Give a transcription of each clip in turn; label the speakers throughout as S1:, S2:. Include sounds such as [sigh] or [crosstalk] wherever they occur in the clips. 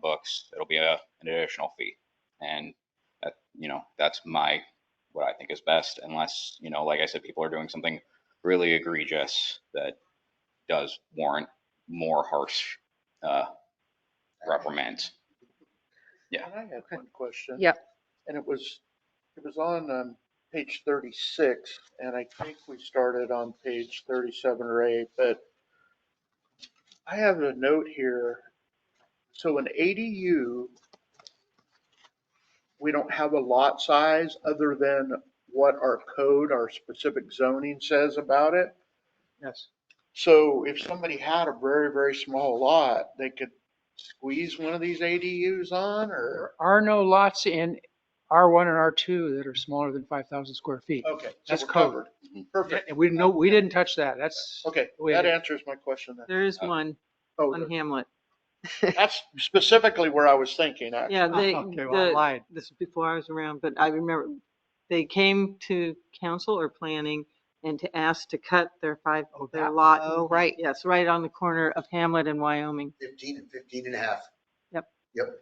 S1: books, it'll be a, an additional fee. And that, you know, that's my, what I think is best unless, you know, like I said, people are doing something really egregious that does warrant more harsh, uh, reprimands. Yeah.
S2: And I had one question.
S3: Yep.
S2: And it was, it was on, um, page thirty-six, and I think we started on page thirty-seven or eight, but I have a note here. So an ADU, we don't have a lot size other than what our code, our specific zoning says about it.
S4: Yes.
S2: So if somebody had a very, very small lot, they could squeeze one of these ADUs on or?
S4: There are no lots in R1 and R2 that are smaller than 5,000 square feet.
S2: Okay. so
S4: That's
S2: we're
S4: covered.
S2: Perfect.
S4: And we didn't know, we didn't touch that. That's,
S2: Okay,
S4: We-
S2: that answers my question then.
S5: There is
S1: Uh,
S5: one
S2: Oh,
S5: on Hamlet.
S2: that's specifically where I was thinking. I-
S5: Yeah,
S4: [laughs]
S5: they,
S4: Oh, okay, well, I
S5: the,
S4: lied.
S5: this is before I was around, but I remember they came to council or planning and to ask to cut their five,
S4: Oh,
S5: their
S4: that-
S5: lot.
S3: oh, right.
S5: Yes, right on the corner of Hamlet and Wyoming.
S6: 15 and 15 and a half.
S5: Yep.
S6: Yep,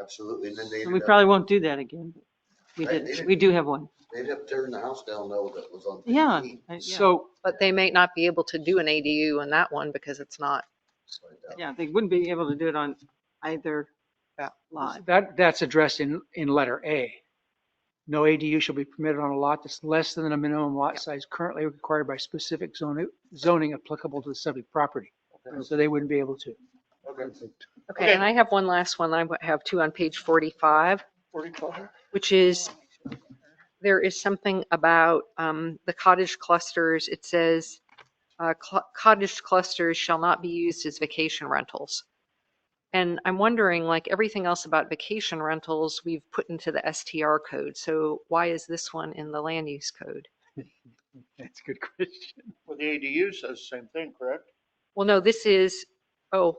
S6: absolutely. And then they
S5: And we
S6: ended up,
S5: probably won't do that again. We
S6: Right,
S5: did,
S6: they
S5: we do have one.
S6: they ended up tearing the house down though that was on
S5: Yeah.
S6: 15.
S5: I- yeah.
S4: So
S3: But they may not be able to do an ADU on that one because it's not,
S6: It's like that.
S5: Yeah, they wouldn't be able to do it on either lot.
S4: that, that's addressed in, in letter A. No ADU shall be permitted on a lot that's less than the minimum lot size currently required by specific zoning, zoning applicable to the subject property.
S2: Okay.
S4: So they wouldn't be able to.
S2: Okay.
S3: okay, and I have one last one. I have two on page 45,
S2: Forty-five?
S3: which is, there is something about um, the cottage clusters. It says, uh, cl- cottage clusters shall not be used as vacation rentals. And I'm wondering, like everything else about vacation rentals, we've put into the STR code. So why is this one in the land use code?
S4: That's a good question.
S2: Well, the ADU says the same thing, correct?
S3: Well, no, this is, oh,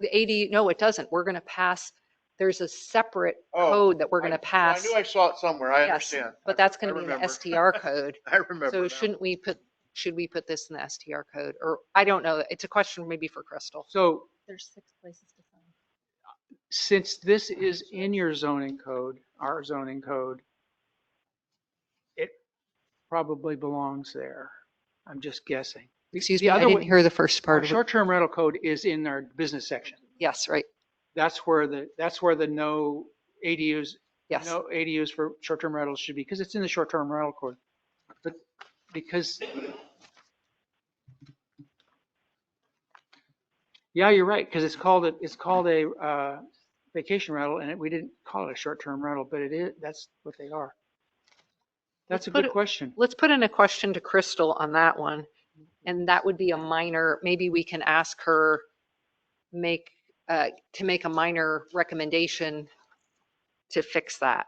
S3: the AD, no, it doesn't. We're going to pass, there's a separate
S2: Oh,
S3: code that we're
S2: I-
S3: going
S2: well,
S3: to pass.
S2: I knew I saw it somewhere. I
S3: Yes,
S2: understand.
S3: But that's
S2: I
S3: going to be an
S2: remember. [laughs]
S3: STR code.
S2: I remember.
S3: So
S2: now.
S3: shouldn't we put, should we put this in the STR code? Or I don't know. It's a question maybe for Crystal.
S4: So
S7: There's six places to sign.
S4: since this is in your zoning code, our zoning code, it probably belongs there. I'm just guessing. The-
S3: Excuse
S4: the
S3: me, I
S4: other
S3: didn't
S4: one-
S3: hear the first
S4: Our
S3: part of it.
S4: short-term rental code is in our business section.
S3: Yes, right.
S4: That's where the, that's where the no ADUs,
S3: Yes.
S4: no ADUs for short-term rentals should be, because it's in the short-term rental code. But because yeah, you're right, because it's called, a- it's called a uh, vacation rental, and it- we didn't call it a short-term rental, but it is, that's what they are.
S3: Let's
S4: That's a
S3: put
S4: good
S3: it-
S4: question.
S3: Let's put in a question to Crystal on that one. And that would be a minor, maybe we can ask her make, uh, to make a minor recommendation to fix that.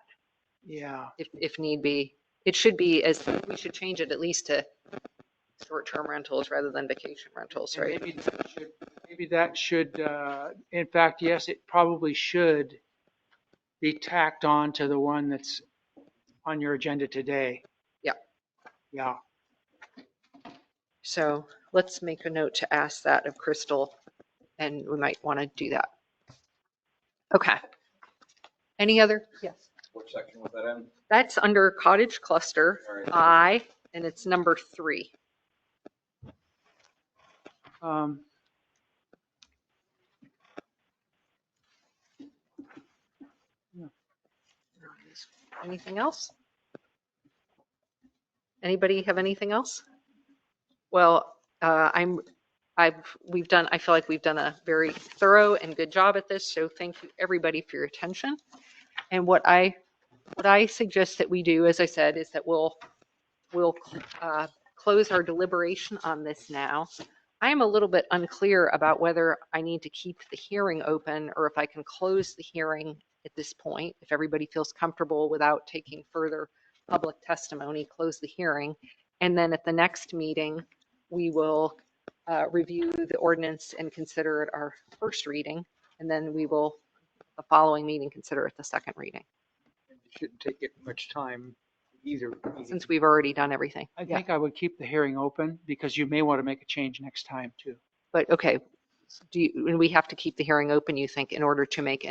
S4: Yeah,
S3: if, if need be. It should be as, we should change it at least to short-term rentals rather than vacation rentals,
S4: and
S3: right?
S4: maybe that should- maybe that should, uh, in fact, yes, it probably should be tacked on to the one that's on your agenda today.
S3: Yeah.
S4: Yeah,
S3: So let's make a note to ask that of Crystal, and we might want to do that. Okay. Any other? Yes.
S1: Which section was that in?
S3: That's under cottage cluster,
S1: All right.
S3: I, and it's number three.
S4: um,
S3: Anything else? Anybody have anything else? Well, uh, I'm, I've, we've done, I feel like we've done a very thorough and good job at this, so thank you, everybody, for your attention. And what I, what I suggest that we do, as I said, is that we'll, we'll uh, close our deliberation on this now. I am a little bit unclear about whether I need to keep the hearing open or if I can close the hearing at this point, if everybody feels comfortable without taking further public testimony, close the hearing. And then at the next meeting, we will uh, review the ordinance and consider it our first reading. And then we will, the following meeting, consider it the second reading,
S4: it shouldn't take it much time either.
S3: since we've already done everything.
S4: I
S3: Yeah.
S4: think I would keep the hearing open because you may want to make a change next time too.
S3: But, okay, do you, and we have to keep the hearing open, you think, in order to make any